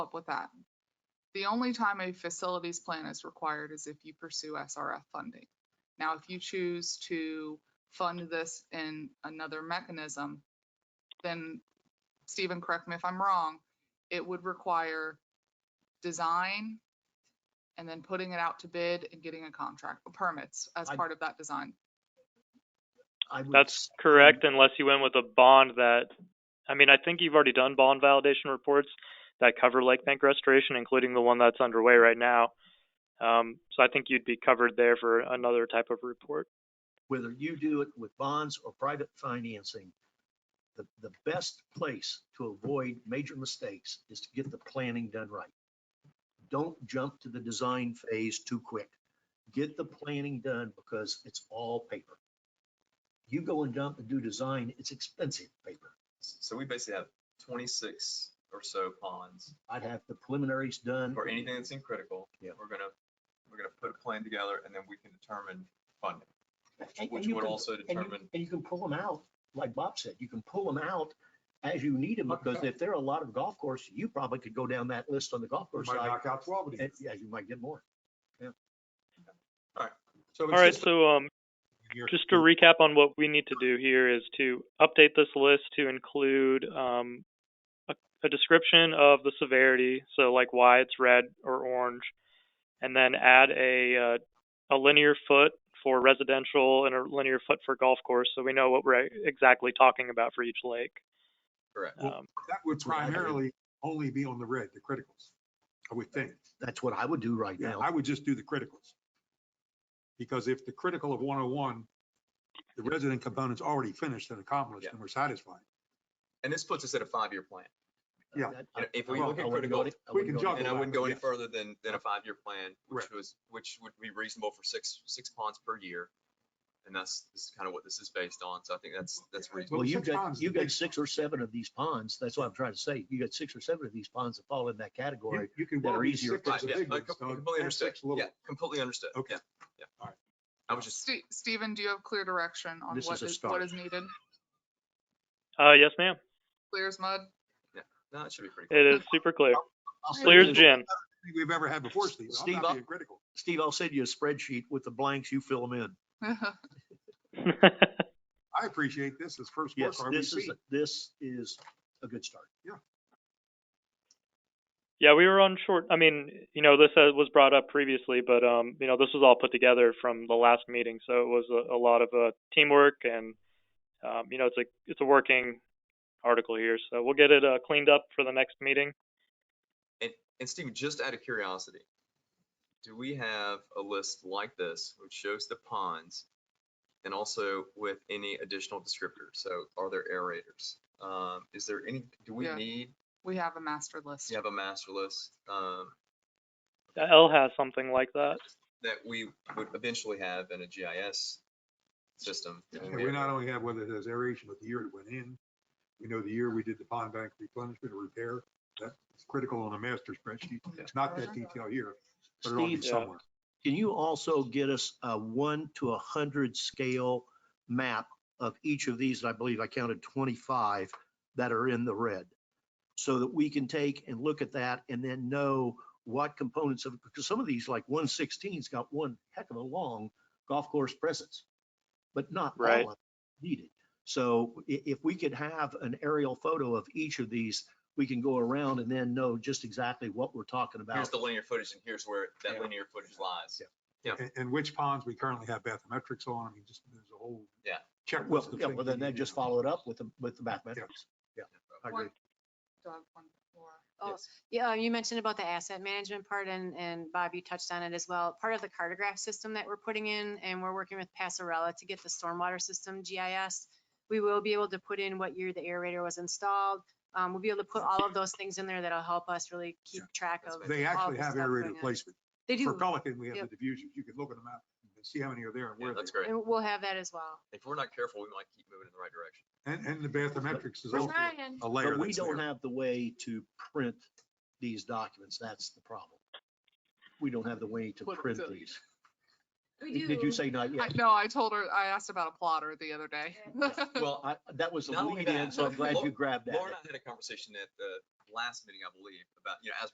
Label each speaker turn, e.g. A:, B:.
A: up with that. The only time a facilities plan is required is if you pursue SRF funding. Now, if you choose to fund this in another mechanism, then Stephen, correct me if I'm wrong, it would require design and then putting it out to bid and getting a contract, permits as
B: I-
A: part of that design.
B: I would,
C: That's correct, unless you went with a bond that, I mean, I think you've already done bond validation reports that cover lake bank restoration, including the one that's underway right now. Um, so I think you'd be covered there for another type of report.
B: whether you do it with bonds or private financing, the, the best place to avoid major mistakes is to get the planning done right. Don't jump to the design phase too quick. Get the planning done because it's all paper. You go and jump and do design, it's expensive paper.
D: So we basically have twenty-six or so ponds
B: I'd have the preliminaries
E: Mm-hmm.
B: done.
D: or anything that's in critical.
B: Yeah.
D: We're gonna, we're gonna put a plan together and then we can determine funding,
B: And-
D: which
B: and you
D: would
B: can-
D: also
B: And you,
D: determine,
B: and you can pull them out, like Bob said, you can pull them out as you need them, because if there are a lot of golf course, you probably could go down that list on the golf course
E: Might
B: side.
E: knock out twelve of
B: and-
E: these.
B: Yeah, you might get more.
E: So
C: All
E: it's
C: right,
E: just-
C: so, um,
E: you're-
C: just to recap on what we need to do here is to update this list to include, um, a, a description of the severity, so like why it's red or orange, and then add a, uh, a linear foot for residential and a linear foot for golf course, so we know what we're exactly talking about for each lake.
D: correct?
C: Um,
E: That would
B: That's what I did.
E: primarily only be on the red, the criticals, I would think.
B: That's what I would do right
E: Yeah,
B: now.
E: I would just do the criticals. Because if the critical of 101, the resident component's already finished and accomplished
D: Yeah.
E: and we're satisfied.
D: And this puts us at a five-year plan.
E: yeah.
B: That-
D: You know, If we
B: I- I
D: look at
B: wouldn't
D: critical,
B: go any- I
E: we
B: wouldn't
E: can
B: go
E: jump
B: any-
D: and I wouldn't go any
E: Yeah.
D: further than, than a five-year plan, which
E: Right.
D: was, which would be reasonable for six, six ponds per year. And that's, this is kind of what this is based on, so I think that's, that's reasonable.
B: Well, you
E: six
B: got,
E: ponds is
B: you
E: a
B: got
E: big-
B: six or seven of these ponds. That's what I'm trying to say. You got six or seven of these ponds that fall in that
E: You-
B: category.
E: You can
B: that
E: well
B: are
E: do
B: easier
E: six
B: to
E: as
D: Right,
E: the
D: yeah,
E: big
D: I
E: ones,
D: com-
E: Doug,
D: completely
E: and
D: understood,
E: six little
D: yeah,
E: ones.
D: completely understood,
E: Okay.
D: yeah, yeah.
E: All right.
D: I was just,
A: Ste- Stephen, do you have clear direction on
B: This
A: what
B: is a
A: is, what
B: start.
A: is needed?
C: uh, yes, ma'am,
A: Clear as mud?
D: no, it should be pretty. clear.
C: it is super clear,
B: I'll send
C: clear
B: you-
C: as gin.
E: I think We've ever had before, Steve. I'm
B: Steve,
E: not
B: I'll-
E: being critical.
B: Steve, I'll send you a spreadsheet with the blanks. You fill them in.
E: I appreciate this as first work.
B: Yes, this is, this is a good start.
C: Yeah, we were on short. I mean, you know, this uh, was brought up previously, but um, you know, this was all put together from the last meeting, so it was a, a lot of uh, teamwork, and um, you know, it's a it's a working article here, so we'll get it uh, cleaned up for the next meeting.
D: And, and Steve, just out of curiosity, do we have a list like this which shows the ponds and also with any additional descriptors? So are there aerators? Um, is there any, do we
A: Yeah.
D: need,
A: We have a master list.
D: to have a master list, um,
C: L has something like that.
D: that we would eventually have in a GIS system?
E: And we not only have whether it has aeration, but the year it went in. We know the year we did the pond bank replenishment or repair. That's critical on a master spreadsheet. It's not that detail here, but it'll be
D: uh,
B: Steve,
E: somewhere.
B: Can you also get us a one to a hundred scale map of each of these? And I believe I counted twenty-five that are in the red. So that we can take and look at that and then know what components of, because some of these, like one sixteen's got one heck of a long golf course presence. But not all
C: Right.
B: of them needed. So i- if we could have an aerial photo of each of these, we can go around and then know just exactly what we're talking about.
D: Here's the linear footage and here's where
B: Yeah.
D: that linear footage lies.
B: Yeah.
D: Yeah.
E: And, and which ponds we currently have bathymetrics on. I mean, just, there's a whole.
D: Yeah.
E: Checklist.
B: Well,
E: of
B: yeah, well,
E: things we
B: then
E: need
B: they
E: to
B: just
E: do.
B: follow it up with the, with the mathematics. Yeah, I agree.
A: One- Doug, one more.
F: Oh,
D: Yes.
F: yeah, you mentioned about the asset management part and, and Bob, you touched on it as well. Part of the cartograph system that we're putting in and we're working with Passarella to get the stormwater system GIS. We will be able to put in what year the aerator was installed. Um, we'll be able to put all of those things in there that'll help us really keep
E: Yeah.
F: track
D: That's
F: of.
E: They
F: all
E: actually
F: the
E: have
F: stuff
E: aerated
F: going on.
E: placement.
F: They
E: For
F: do,
E: Pelican, we have
F: Yep.
E: the diffusions. You can look at them out and see how many are there and
D: Yeah,
E: where they
D: that's great.
F: and we'll have that as well.
D: If we're not careful, we might keep moving in the right direction.
E: are. And, and the bathymetrics is
F: We're
E: also
F: trying.
E: a layer
B: But we
E: that's there.
B: don't have the way to print these documents. That's the problem. We don't have the way to
A: What
B: print
A: the-
B: these. Did you say not
A: I,
B: yet?
A: no, I told her, I asked about a plotter the other day.
D: Well,
B: I, that was a
D: Not only
B: lead in,
D: that,
B: so I'm glad
D: Laura-
B: you grabbed that.
D: Laura and I had a conversation at the last meeting, I believe, about, you know, as